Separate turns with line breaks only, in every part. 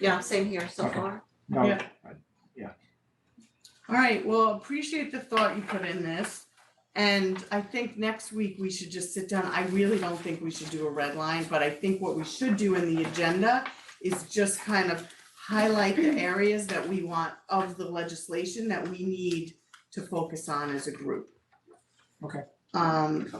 Yeah, same here so
Okay.
far.
No,
Yeah.
I-
All right, well, appreciate the thought you put in this. And I think next week we should just sit down. I really don't think we should do a red line, but I think what we should do in the agenda is just kind of highlight the areas that we want of the legislation that we need to focus on as a group.
Okay.
Um,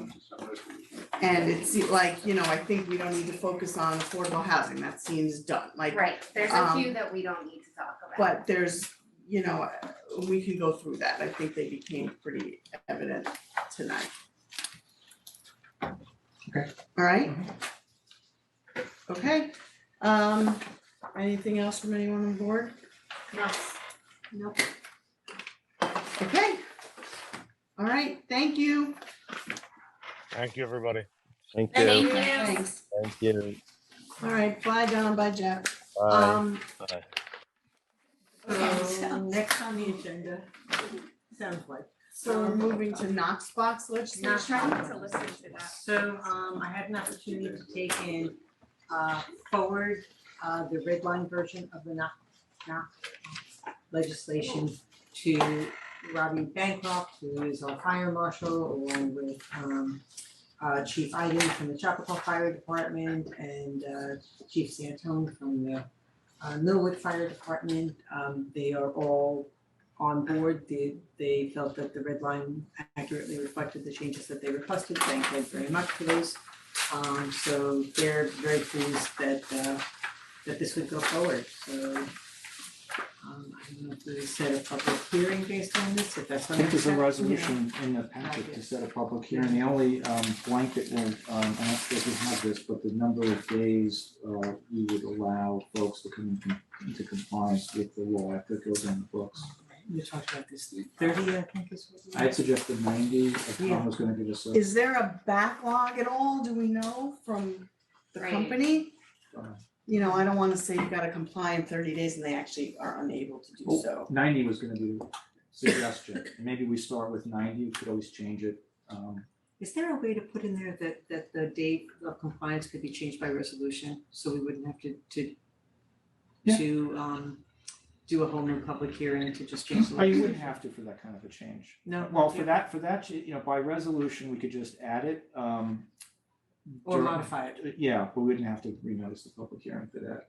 and it's like, you know, I think we don't need to focus on affordable housing. That seems done. Like,
Right, there's a
Um,
few that we don't need to talk about.
but there's, you know, we can go through that. I think they became pretty evident tonight.
Okay.
All right. Okay, um, anything else from anyone on board?
No,
Nope.
Okay. All right, thank you.
Thank you, everybody.
Thank
Thank
you.
you.
Thanks.
Thank you.
All right, bye Donna, bye Jeff.
Bye.
Um,
Bye.
Okay,
So
so-
Um, next on the agenda, sounds like.
so we're moving to Knox Box
not
legislation.
trying to listen to that.
So um I had an opportunity to take in uh forward uh the red line version of the knock knock legislation to Robbie Bancroft, who is our fire marshal, along with um uh Chief Iden from the Chapel Fire Department and uh Chief Santone from the uh Millwood Fire Department. Um they are all on board. They they felt that the red line accurately reflected the changes that they requested. Thank you very much for those. Um, so they're very pleased that, uh, that this would go forward, so. Um, I don't know if we set a public hearing based on this, if that's
I
what.
think there's a
happened.
resolution in the packet to set a public hearing. The only um, blanket one, um, I'm not sure if we have this, but the number of days uh, we would allow folks to come in- into compliance with the law after it goes on the books.
We talked about this, thirty, I think is what. we-
I had suggested ninety, if
Yeah.
Tom was gonna give us a,
Is there a backlog at all? Do we know from the
Right.
company?
Uh.
You know, I don't wanna say you gotta comply in thirty days and they actually are unable to do
Oh.
so.
ninety was gonna be the suggestion. Maybe we start with ninety, we could always change it. Um,
Is there a way to put in there that, that the date of compliance could be changed by resolution, so we wouldn't have to, to,
Yeah.
to, um, do a whole new public hearing to just change the.
Oh, you wouldn't have to for that kind of a change.
No,
Well, for
yeah.
that, for that, you know, by resolution, we could just add it, um.
Or
during-
modify it,
Yeah, but we wouldn't have to renotice the public hearing for that.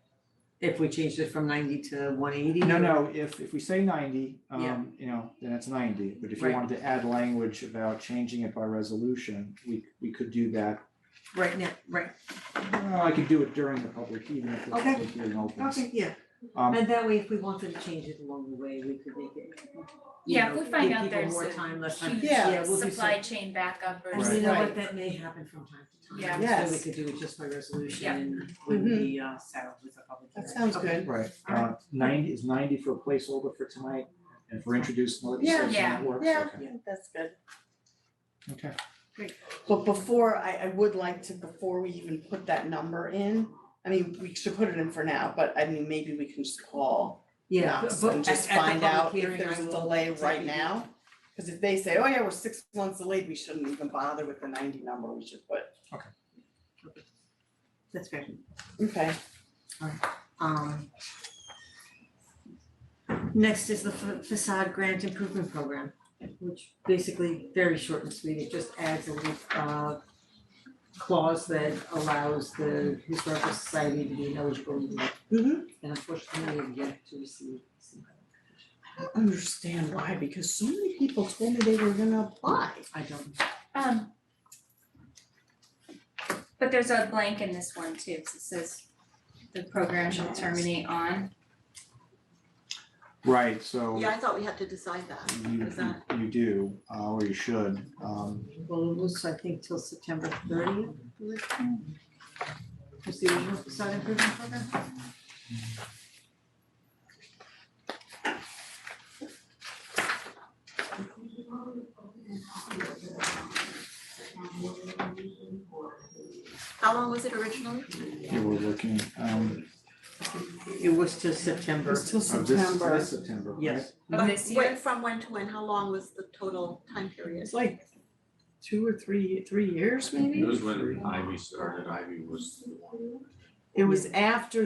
if we changed it from ninety to one eighty.
No, no, if, if we say ninety,
Yeah.
um, you know, then it's ninety, but if you
Right.
wanted to add language about changing it by resolution, we, we could do that.
Right now, right,
Well, I could do it during the public, even if the
Okay.
public hearing opens.
okay, yeah,
Um,
and that way, if we wanted to change it along the way, we could make it. you
Yeah,
know,
if we find
give
out
people
there's
More
a
time, less time,
huge
Yeah,
yeah, we'll do so.
supply chain backup or
And you
something.
know
Right.
what, that may happen from time to
Yeah.
time, so we
Yes.
could do it just by resolution
Yeah. Mm-hmm.
and wouldn't be uh saddled with a public hearing.
That sounds
Okay.
good.
right, uh, ninety, is ninety for a placeholder for tonight, and for introducing legislation
Yeah.
that works, okay,
Yeah,
okay.
I think that's good. But before, I, I would like to, before we even put that number in, I mean, we should put it in for now, but I mean, maybe we can just call
Yeah,
Knox
but
and
at-
just
at the
find
public
out if
hearing,
there's
I
a
will
delay
tell
right
you.
now. Cause if they say, oh yeah, we're six months delayed, we shouldn't even bother with the ninety number, we should put,
That's fair.
okay,
Um. Next is the fa- facade grant improvement program, which basically very short and sweet, it just adds a little uh. Clause that allows the historical society to be eligible,
Mhm.
and unfortunately, we have yet to receive some.
I don't understand why, because so many people told me they were gonna apply.
I don't,
Um, But there's a blank in this one too, 'cause it says the program shall terminate on.
Right, so
Yeah, I thought we had to decide that.
you,
Is that-
you do, uh, or you should, um,
well, it was, I think, till September thirtieth. Was the original facade improvement program?
How long was it originally?
you were looking, um,
It was till September.
It's till
of this,
September.
this September, right?
Yes.
Of
But
this
wait,
year?
From when to when? How long was the total time period?
It's like two or three, three years maybe?
It was when Ivy started, Ivy was the one.
It was after